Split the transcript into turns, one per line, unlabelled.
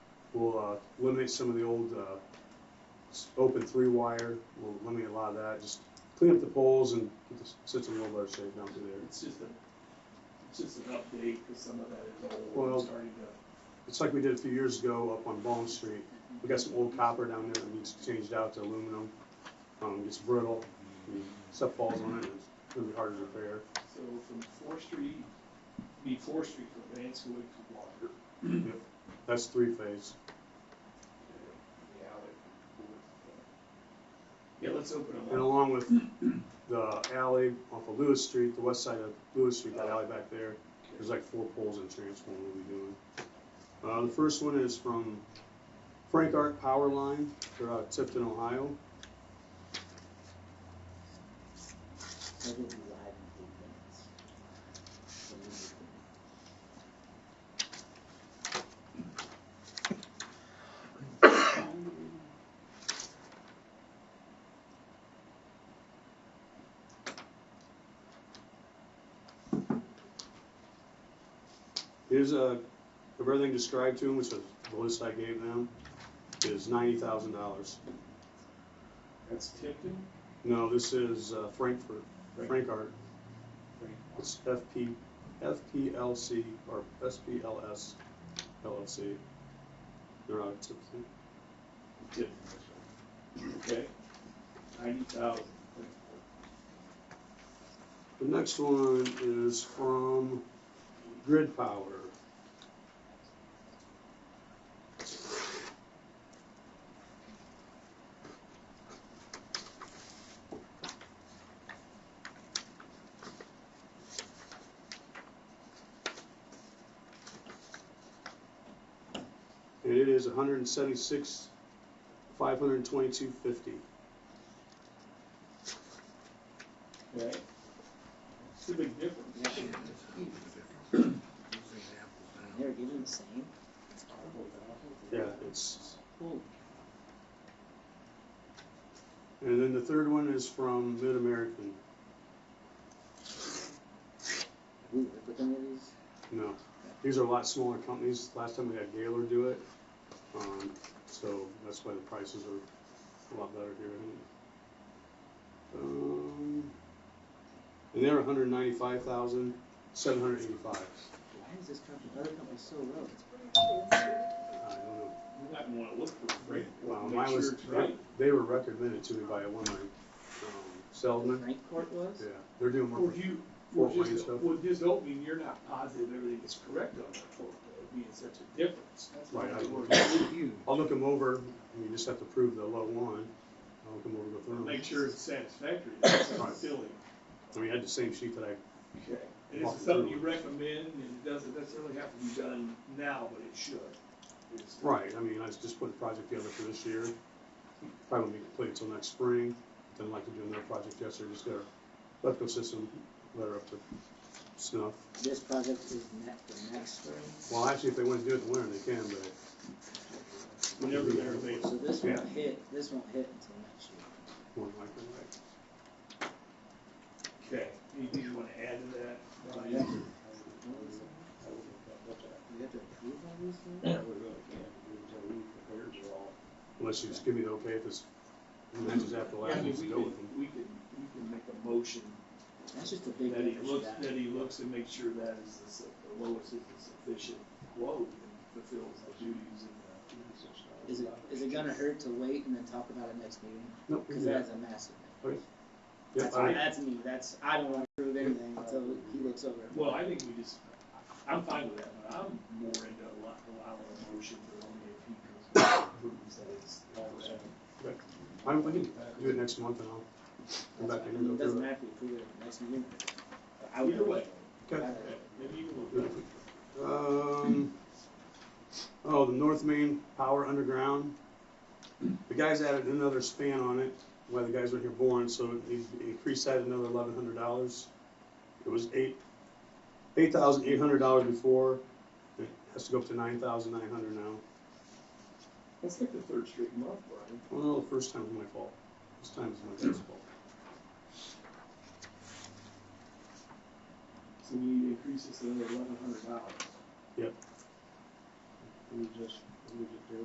We'll uh, eliminate some of the old uh, s- open three wire, we'll eliminate a lot of that, just clean up the poles and get the s- system in a little better shape down through there.
It's just a, it's just an update, because some of that is old,
Well-
and starting to,
It's like we did a few years ago up on Bone Street, we got some old copper down there that needs changed out to aluminum. Um, It's brittle, and stuff falls on it, and it's really hard to repair.
so from Fourth Street, be Fourth Street from Vanswood to Walker.
Yep, That's three phase.
Yeah, Yeah, let's open
And
them up.
along with the alley off of Lewis Street, the west side of Lewis Street, that alley back there, there's like four poles in transformer we'll be doing. Uh, the first one is from Frank Art Power Line, they're out of Tifton, Ohio.
Maybe it'll be live in eight minutes. So we can-
Here's a, of everything described to him, which is the list I gave them, is ninety thousand dollars.
That's Tipton.
No, this is uh, Frankfurt, Frank Art,
Frank.
it's FP, FPLC or SPLS LLC. They're out of Tifton.
Tipton. Okay, ninety thousand.
The next one is from Grid Power. And it is hundred and seventy-six, five hundred and twenty-two fifty.
Okay. It's a big difference.
They're getting the same. It's horrible, though.
Yeah, it's
Cool.
And then the third one is from Mid American.
We work with them of these.
No, these are a lot smaller companies. Last time we had Gaylor do it, um, so that's why the prices are a lot better here. I think. Um, and they're one hundred ninety-five thousand seven hundred eighty-five.
Why is this company, other company so low?
I don't know.
You might wanna look for Frank.
Well,
Make
mine
sure
was
it's right.
they were recommended to me by a woman, um, Seldman.
Frank Court was?
Yeah, they're doing more.
Would you, would
Fort Wayne
just,
stuff.
would just opening, you're not positive everything is correct on that photo, it'd be in such a difference. That's why
Right, I-
I worry.
Huge.
I'll look them over. and You just have to prove the low one. I'll look them over. Go through 'em.
Make sure it's satisfactory, that's not silly.
We had the same sheet that I
Okay. And this is something you recommend, and it doesn't necessarily have to be done now, but it should. It's-
Right, I mean, I was just putting a project together for this year. Probably won't be complete until next spring. Didn't like to do another project yesterday, just got our electrical system letter up to snuff.
This project is not for next spring.
Well, actually, if they want to do it in the winter, they can, but,
Whenever they're available.
So this
Yeah.
won't hit, this won't hit until next year.
more than likely, right?
Okay. Anything you wanna add to that? Brian?
Yeah. We have to approve all these things?
Yeah, we really can't, because we, the birds are all,
Unless you just give me the okay, if it's, and then just after
Yeah, I
last,
mean,
we'll
we
go with them.
can, we can, we can make a motion
That's just a big
that he
difference.
looks,
that-
that he looks and makes sure that is the su- the lowest is the sufficient quote and fulfills the duties and the.
Is it, is it gonna hurt to wait and then talk about it next meeting?
Nope,
Cause
yeah.
that's a massive thing.
Okay. Yeah,
That's,
all right.
that's me, that's, I don't wanna prove anything until he looks over it.
Well, I think we just, I'm fine with that, but I'm more into allo- allowing a motion for only if he comes and proves that it's all that.
I don't, we can do it next month and I'll come back in
It
and go
doesn't
through it.
matter if we approve it at the next meeting. I would-
Either way.
Okay.
I-
Okay, Maybe you can look at it.
Um, oh, the North Main Power Underground. The guys added another span on it, while the guys were here born, so it needs to be increased that another eleven hundred dollars. It was eight, eight thousand eight hundred dollars before, it has to go up to nine thousand nine hundred now.
That's like the third straight month, Brian.
Well, no, the first time was my fault, this time is my dad's fault.
So we need to increase this another eleven hundred dollars.
we just, we just